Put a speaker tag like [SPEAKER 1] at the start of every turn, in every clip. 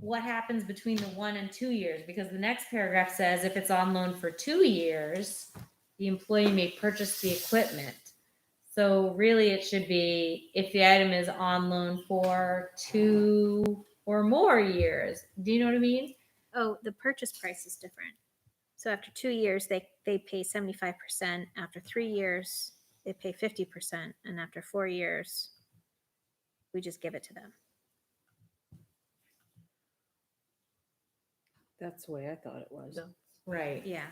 [SPEAKER 1] what happens between the one and two years? Because the next paragraph says if it's on loan for two years, the employee may purchase the equipment. So really, it should be if the item is on loan for two or more years. Do you know what I mean?
[SPEAKER 2] Oh, the purchase price is different. So after two years, they, they pay seventy-five percent. After three years, they pay fifty percent. And after four years, we just give it to them.
[SPEAKER 3] That's the way I thought it was.
[SPEAKER 1] Right.
[SPEAKER 2] Yeah.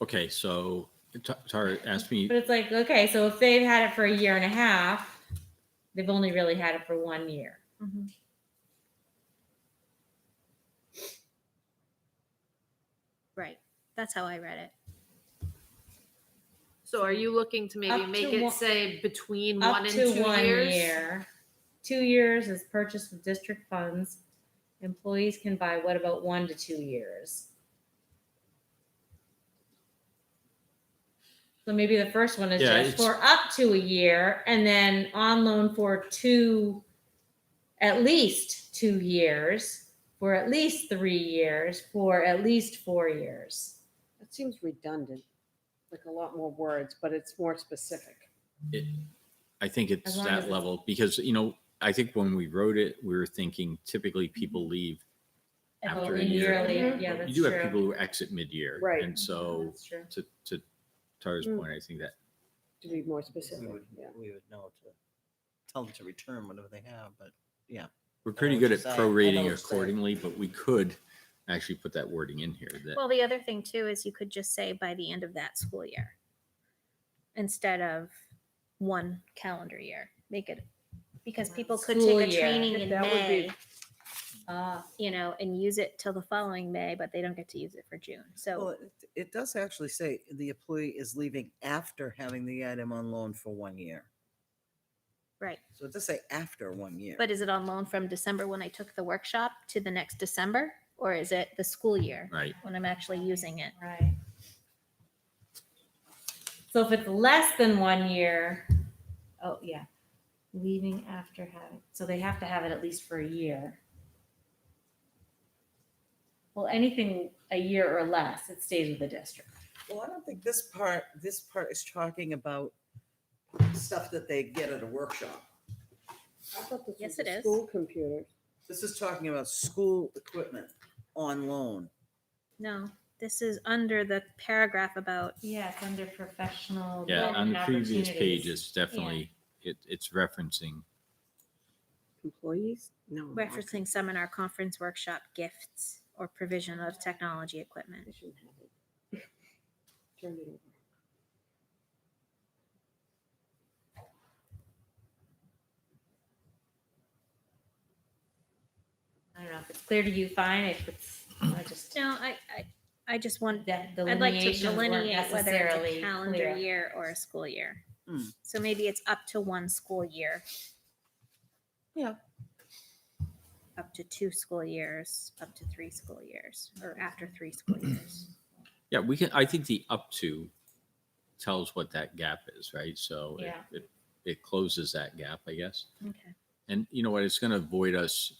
[SPEAKER 4] Okay, so Ta- Tara asked me,
[SPEAKER 1] But it's like, okay, so if they've had it for a year and a half, they've only really had it for one year.
[SPEAKER 2] Right. That's how I read it.
[SPEAKER 5] So are you looking to maybe
[SPEAKER 1] Up
[SPEAKER 5] make
[SPEAKER 1] to
[SPEAKER 5] it
[SPEAKER 1] one-
[SPEAKER 5] say between
[SPEAKER 1] Up
[SPEAKER 5] one and
[SPEAKER 1] to
[SPEAKER 5] two
[SPEAKER 1] one
[SPEAKER 5] years?
[SPEAKER 1] year. Two years is purchase with district funds. Employees can buy what about one to two years? So maybe the first one is
[SPEAKER 4] Yeah,
[SPEAKER 1] just
[SPEAKER 4] it's-
[SPEAKER 1] for up to a year and then on loan for two, at least two years, for at least three years, for at least four years.
[SPEAKER 3] It seems redundant, like a lot more words, but it's more specific.
[SPEAKER 4] I think
[SPEAKER 1] As
[SPEAKER 4] it's
[SPEAKER 1] long as
[SPEAKER 4] that
[SPEAKER 1] it's-
[SPEAKER 4] level because, you know, I think when we wrote it, we were thinking typically people leave.
[SPEAKER 1] About
[SPEAKER 4] After a
[SPEAKER 1] Mm-hmm. a year
[SPEAKER 4] year.
[SPEAKER 1] later.
[SPEAKER 5] Mm-hmm.
[SPEAKER 3] Mhm.
[SPEAKER 1] Yeah,
[SPEAKER 4] You
[SPEAKER 1] that's
[SPEAKER 4] do have people
[SPEAKER 1] true.
[SPEAKER 4] who exit mid-year.
[SPEAKER 3] Right.
[SPEAKER 4] And so
[SPEAKER 1] That's true.
[SPEAKER 4] to, to Tara's
[SPEAKER 3] Mm.
[SPEAKER 4] point, I think that,
[SPEAKER 3] To be more
[SPEAKER 6] We
[SPEAKER 3] specific,
[SPEAKER 6] would,
[SPEAKER 3] yeah.
[SPEAKER 6] we would know to tell them to return whatever they have, but
[SPEAKER 4] we're
[SPEAKER 6] know
[SPEAKER 4] pretty
[SPEAKER 6] what
[SPEAKER 4] good
[SPEAKER 6] you're
[SPEAKER 4] at
[SPEAKER 6] saying. I know what
[SPEAKER 4] prorating
[SPEAKER 6] you're saying.
[SPEAKER 4] accordingly, but we could actually put that wording in here that,
[SPEAKER 2] Well, the other thing too is you could just say by the end of that school year instead of one calendar year. Make it, because people could
[SPEAKER 1] School
[SPEAKER 2] take a
[SPEAKER 1] year.
[SPEAKER 2] training in
[SPEAKER 3] That would be-
[SPEAKER 2] May,
[SPEAKER 1] Ah,
[SPEAKER 2] you know, and use it till the following May, but they don't get to use it for June.
[SPEAKER 6] Well,
[SPEAKER 2] So,
[SPEAKER 6] it, it does actually say the employee is leaving after having the item on loan for one year.
[SPEAKER 2] right.
[SPEAKER 6] So it does say after one year.
[SPEAKER 2] But is it on loan from December when I took the workshop to the next December? Or is it the school year
[SPEAKER 4] right?
[SPEAKER 2] when I'm actually using it?
[SPEAKER 1] right. So if it's less than one year, oh, yeah, leaving after having, so they have to have it at least for a year. Well, anything a year or less, it stays with the district.
[SPEAKER 6] Well, I don't think this part, this part is talking about stuff that they get at a workshop.
[SPEAKER 3] I thought this
[SPEAKER 2] Yes,
[SPEAKER 3] was the
[SPEAKER 2] it is.
[SPEAKER 3] School computers.
[SPEAKER 6] This is talking about school equipment on loan.
[SPEAKER 2] No, this is under the paragraph about,
[SPEAKER 1] Yes, under professional.
[SPEAKER 4] Yeah,
[SPEAKER 1] development
[SPEAKER 4] on the previous
[SPEAKER 1] opportunities.
[SPEAKER 4] page, it's definitely, it, it's referencing
[SPEAKER 3] Employees? No. no, okay.
[SPEAKER 2] referencing seminar, conference, workshop, gifts, or provision of technology equipment.
[SPEAKER 3] I shouldn't have it. Turn it over.
[SPEAKER 1] I don't know if it's clear to you, fine, if it's, I just,
[SPEAKER 2] No, I, I, I just want,
[SPEAKER 1] that
[SPEAKER 2] I'd like to
[SPEAKER 1] delineations weren't
[SPEAKER 2] delineate whether it's
[SPEAKER 1] necessarily
[SPEAKER 2] a calendar
[SPEAKER 1] clear.
[SPEAKER 2] year or a school year.
[SPEAKER 6] Hmm.
[SPEAKER 2] So maybe it's up to one school year.
[SPEAKER 6] Yeah.
[SPEAKER 2] Up to two school years, up to three school years, or after three school years.
[SPEAKER 4] Yeah, we can, I think the up to tells what that gap is, right? So it,
[SPEAKER 1] Yeah.
[SPEAKER 4] it, it closes that gap, I guess.
[SPEAKER 2] Okay.
[SPEAKER 4] And you know what? It's gonna avoid us.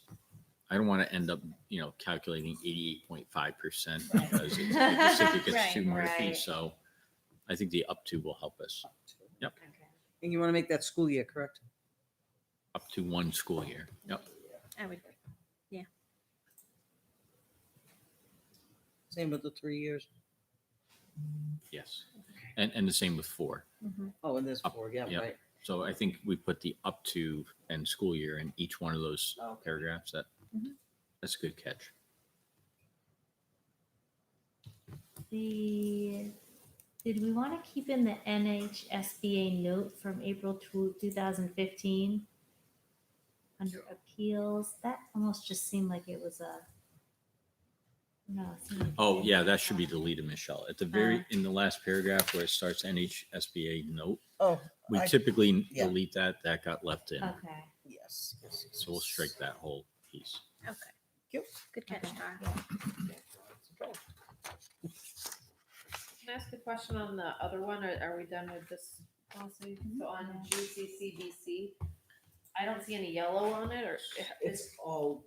[SPEAKER 4] I don't want to end up, you know, calculating eighty-eight point five percent
[SPEAKER 1] Right.
[SPEAKER 4] because it's, it just- it
[SPEAKER 2] Right,
[SPEAKER 4] gets too murky.
[SPEAKER 1] right.
[SPEAKER 4] So I think the up to will help us
[SPEAKER 1] Okay.
[SPEAKER 6] And you want to make that school year, correct?
[SPEAKER 4] up to one school year. Yep.
[SPEAKER 2] I would,
[SPEAKER 6] Same with the three years.
[SPEAKER 4] Yes. And, and the same with four.
[SPEAKER 2] mhm.
[SPEAKER 6] Oh, and there's
[SPEAKER 4] Up,
[SPEAKER 6] four, yeah,
[SPEAKER 4] yeah.
[SPEAKER 6] right.
[SPEAKER 4] So I think we put the up to and school year in each one of those
[SPEAKER 6] Oh, Okay.
[SPEAKER 4] paragraphs. That,
[SPEAKER 1] Mm-hmm.
[SPEAKER 2] Mhm.
[SPEAKER 4] that's a good catch.
[SPEAKER 1] The, did we want to keep in the NHSBA note from April two, two thousand fifteen? Under appeals, that almost just seemed like it was a. No. it seemed like-
[SPEAKER 4] Oh, yeah, that should be deleted, Michelle. At the
[SPEAKER 6] Uh.
[SPEAKER 4] very, in the last paragraph where it starts NHSBA note,
[SPEAKER 6] Oh,
[SPEAKER 4] we
[SPEAKER 6] I-
[SPEAKER 4] typically
[SPEAKER 6] yeah. Uh.
[SPEAKER 4] delete that. That got left in.
[SPEAKER 1] Okay.
[SPEAKER 6] yes. yes, yes,
[SPEAKER 4] So we'll
[SPEAKER 6] yes.
[SPEAKER 4] strike that whole piece.
[SPEAKER 2] Okay.
[SPEAKER 6] Yep.
[SPEAKER 2] Good catch, Tara.
[SPEAKER 5] Can I ask a question on the other one, or are we done with this policy? So on GCCBC, I don't see any yellow on it, or
[SPEAKER 6] It's all